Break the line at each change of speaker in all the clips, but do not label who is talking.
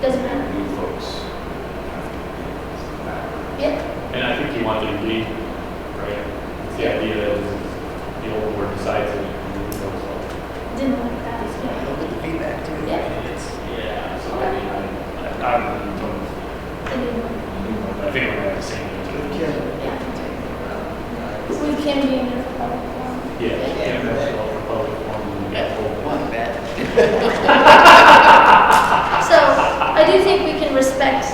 Doesn't matter.
you folks have to be back.
Yep,
And I think he wanted to lead, right? The idea that the old board decides it. and it goes on.
didn't like that as
I
well.
don't get the feedback too.
Yeah.
It's-
Yeah, so I mean, I,
Um,
I I don't,
I didn't like
I think I'm gonna have the same answer.
Yeah.
that. Yeah. We can be in there for public forum.
Yeah, yeah, that's all for public forum.
That whole one, that.
So I do think we can respect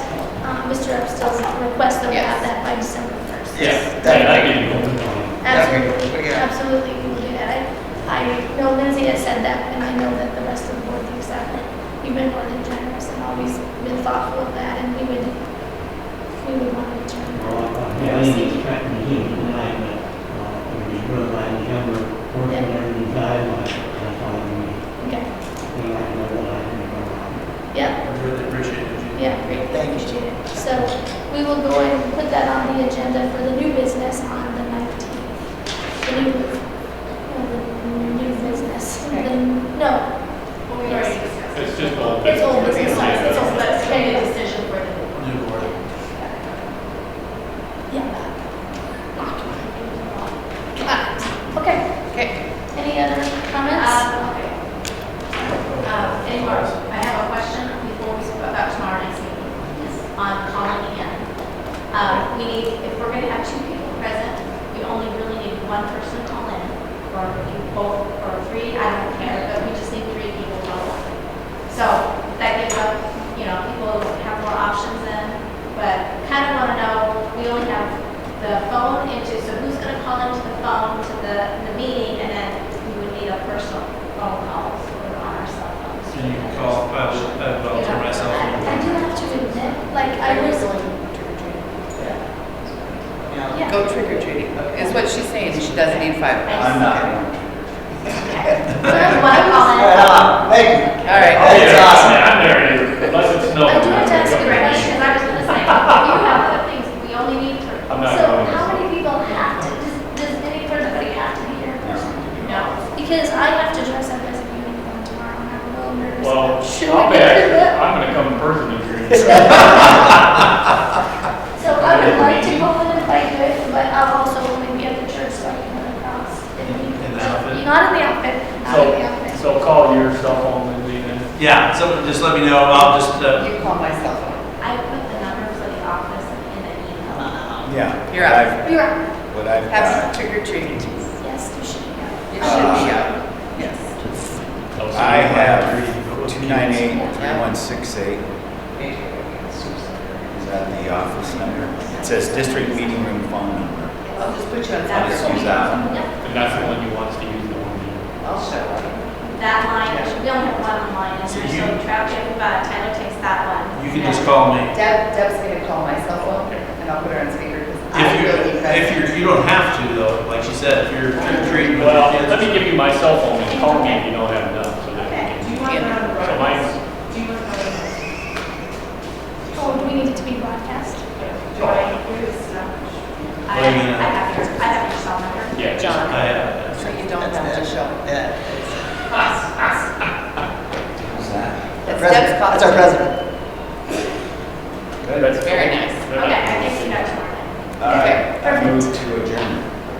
uh, Mr. Upstill's request that we have
Yes.
that by December 1st.
Yes.
Yeah, I mean, open forum.
Okay,
Absolutely,
yeah.
absolutely, we can do that. I, I know Lindsay has said that, and I know that the rest of the board thinks that, but you've been more than generous and always been thoughtful of that, and we would, we would want to return.
Well,
Oh,
that.
I mean, it's kind of heat tonight, but, uh, it was really like the number, working on the guidelines, that's all I mean.
Okay,
We like to know what I think about.
yeah.
I really appreciate it.
Yeah, great, thank you, Janet. So we will go ahead and put that on the agenda for the new business on the 19th. The new, uh, the new business, the, no.
Well, we already discussed.
It's just all.
It's all business,
Sorry,
it's all-
Let's make a decision for the.
New board.
Yeah. Got it. Okay,
Okay.
any other comments?
Um, okay. Um, any more, I have a question before we speak about tomorrow night's meeting. On calling in. Um, we need, if we're gonna have two people present, we only really need one person to call in, or you both, or three, I don't care, but we just need three people total. So that gives up, you know, people have more options then, but kind of want to know, we only have the phone into, so who's going to call into the phone to the, the meeting, and then we would need a personal phone call or on our cell phones.
And you can
uh,
call, uh, I will, I will turn my cell phone.
I do have to admit, like, I was, yeah.
Go trick or treating, is what she's saying, she doesn't need five. bucks.
I'm not.
Want to call in?
All right,
Oh, Yeah, I'm there, unless it's snow.
I do have to ask you a
Right,
question.
because I was going to say, you have other things, we only need three.
Um,
I'm not
So
going.
how many people have to, does, does any anybody have to be here in person?
No.
Because I have to dress up as a unicorn tomorrow, and I'm a little nervous.
Well,
Should
I'll
we
be
do
actually-
that?
I'm gonna come in person if you're.
So I would like to go in if I could, but I'll also only be at the church, so I can run across. if
In-
needed.
in the
So,
outfit?
Not in the outfit, not in the
So,
outfit.
so call your cell phone and leave it.
Yeah, someone just let me know, I'll just, uh,
you call my cell phone.
I put the numbers of the office in an email.
Yeah.
You're
what
up.
I've-
You're right,
What I've
Have some
got,
trick or treating, it should
yes, you should go.
be up, yes.
I have two nine eight, three one six eight. Is that the office number? It says district meeting room phone number.
I'll just put you on.
I'll just use that.
Yeah,
And that's the one you want to use the one.
I'll show up.
That line, we only have one line in
So
there,
you-
so traffic, but Tyler takes that one.
you can just call me.
Deb, Deb's gonna call my cell phone, and I'll put her on speaker, because I
If you,
really need
if
that.
you're, you don't have to though, like she said, if you're trick or treating
you-
with your
Well, let me
kids.
give you my cell phone and call me if you don't have enough, so that
Okay.
we
Do you
want to
can. So mine's,
oh, do we need it to be broadcast?
Do I hear this stuff? I
What do you mean? uh,
have, um, I have your, I have your cell number.
yeah. just-
I have,
So you don't have to show up.
Who's that?
That's Deb's call. That's our president.
that's-
Very nice.
Okay, I can see that tomorrow.
All right, I move to adjourn.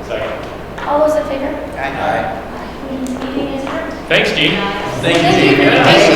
Second.
All those in favor?
I
All right.
Meeting is adjourned.
Thanks, Gene.
Um,
thank you.
Thank you.
Gina.